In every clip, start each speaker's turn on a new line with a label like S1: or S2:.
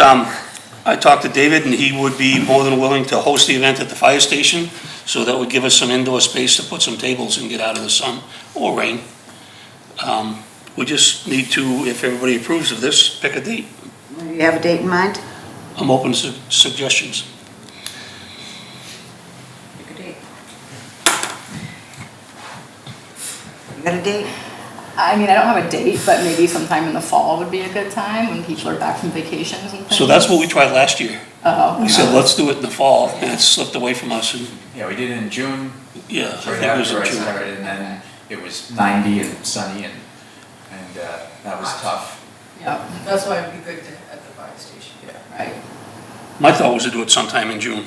S1: Um, I talked to David, and he would be more than willing to host the event at the fire station, so that would give us some indoor space to put some tables and get out of the sun or rain. Um, We just need to, if everybody approves of this, pick a date.
S2: Do you have a date in mind?
S1: I'm open to suggestions.
S2: Pick a date. You got a date?
S3: I mean, I don't have a date, but maybe sometime in the fall would be a good time when people are back from vacations and things.
S1: So that's what we tried last year.
S3: Oh,
S1: We said, let's do it in the fall, and it slipped away from us, and,
S4: Yeah, we did it in June,
S1: yeah, I
S4: right
S1: think it was
S4: after
S1: in
S4: I
S1: June.
S4: started, and then it was ninety and sunny and, and, uh, that was tough.
S3: yeah,
S5: That's why it'd be good to, at the fire station,
S3: right.
S1: My thought was to do it sometime in June.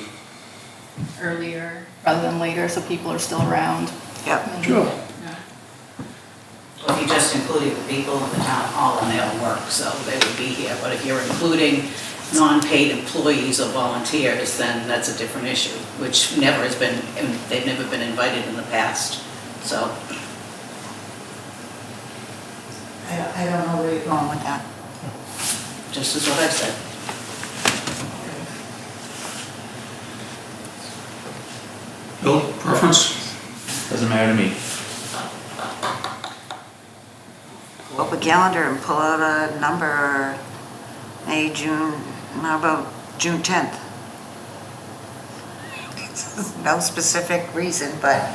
S3: Earlier rather than later, so people are still around.
S2: Yep.
S6: If you just included the people in the town hall and they'll work, so they would be here. But if you're including non-paid employees or volunteers, then that's a different issue, which never has been, they've never been invited in the past. So
S5: I don't, I don't know where you're going with that.
S6: just as what I've said.
S1: Bill, preference?
S4: Doesn't matter to me.
S2: Pull up a calendar and pull out a number, May, June, how about June 10th? No specific reason, but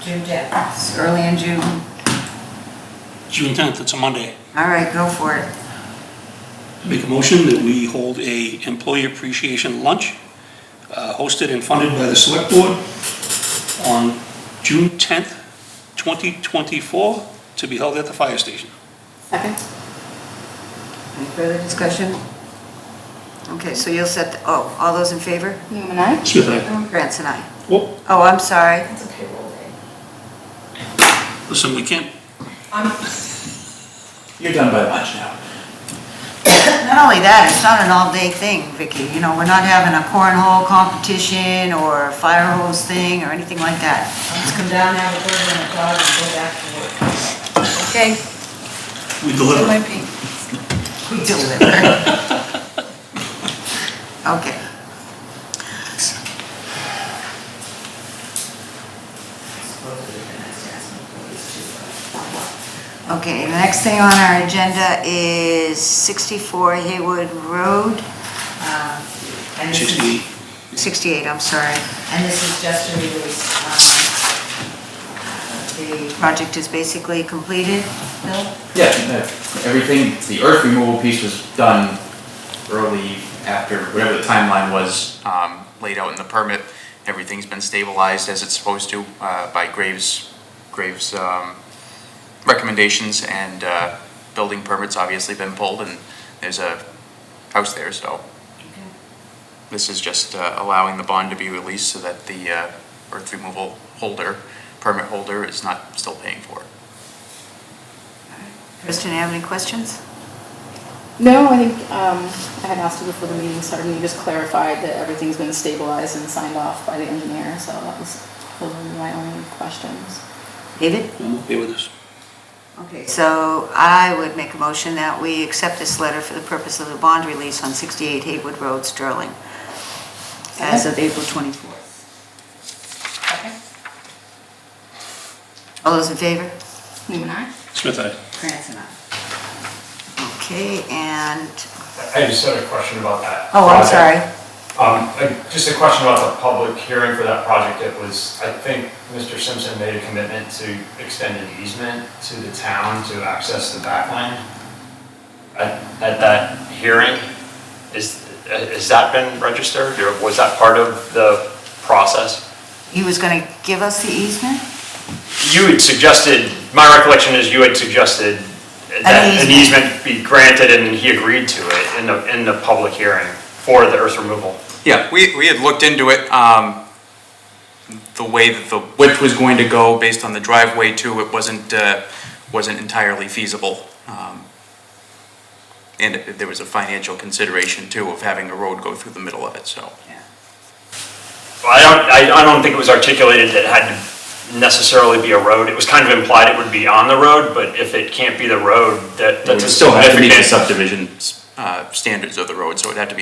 S5: June tenth.
S2: it's early in June.
S1: June 10th, it's a Monday.
S2: All right, go for it.
S1: Make a motion that we hold a employee appreciation lunch uh, hosted and funded by the select board on June 10th, 2024, to be held at the fire station.
S3: Second?
S2: Any further discussion? Okay, so you'll set, the- oh, all those in favor?
S3: Newman, I?
S1: Smith, aye.
S2: Grants and I.
S1: Oh,
S2: Oh, I'm sorry.
S5: That's a payroll day.
S1: listen, we can't,
S5: I'm,
S4: You're done by lunch now.
S2: Not only that, it's not an all-day thing, Vicky. You know, we're not having a cornhole competition or a fire hose thing or anything like that.
S5: I'm just come down, have a burger and a dog and go back to work.
S2: Okay.
S1: we deliver.
S5: might be.
S2: We deliver. Okay. Okay, the next thing on our agenda is 64 Haywood Road, Uh,
S5: And this is,
S1: 68.
S2: 68, I'm sorry.
S5: and this is just a release, um, the
S2: Project is basically completed.
S5: bill.
S4: Yeah, no, everything, the earth removal piece was done early after, whatever the timeline was, um, laid out in the permit. Everything's been stabilized as it's supposed to, uh, by Graves, Graves, um, recommendations and, uh, building permits obviously been pulled and there's a house there, so. This is just, uh, allowing the bond to be released so that the, uh, earth removal holder, permit holder is not still paying for it.
S2: Kristen, have any questions?
S3: No, I think, um, I had asked you before the meeting started, and you just clarified that everything's been stabilized and signed off by the engineer, so that was really my only questions.
S2: David?
S1: I'm okay with this.
S2: Okay, so I would make a motion that we accept this letter for the purpose of the bond release on 68 Haywood Road, Sterling, as of April 24th. All those in favor?
S3: Newman, I?
S1: Smith, aye.
S2: Krantz and I. Okay, and,
S7: I just had a question about that.
S2: oh, I'm
S7: project.
S2: sorry.
S7: Um, I- Just a question about the public hearing for that project. It was, I think Mr. Simpson made a commitment to extend an easement to the town to access the back line. At at that hearing, is, has that been registered or was that part of the process?
S2: He was going to give us the easement?
S7: You had suggested, my recollection is you had suggested that an
S2: easement.
S7: easement be granted and he agreed to it in the, in the public hearing for the earth removal.
S4: Yeah, we, we had looked into it, um, the way that the width was going to go based on the driveway too, it wasn't, uh, wasn't entirely feasible. Um, And it- there was a financial consideration too of having a road go through the middle of it, so.
S7: Well, I don't, I, I don't think it was articulated that it had to necessarily be a road. It was kind of implied it would be on the road, but if it can't be the road, that, that's a significant.
S4: subdivision, uh, standards of the road, so it'd have to be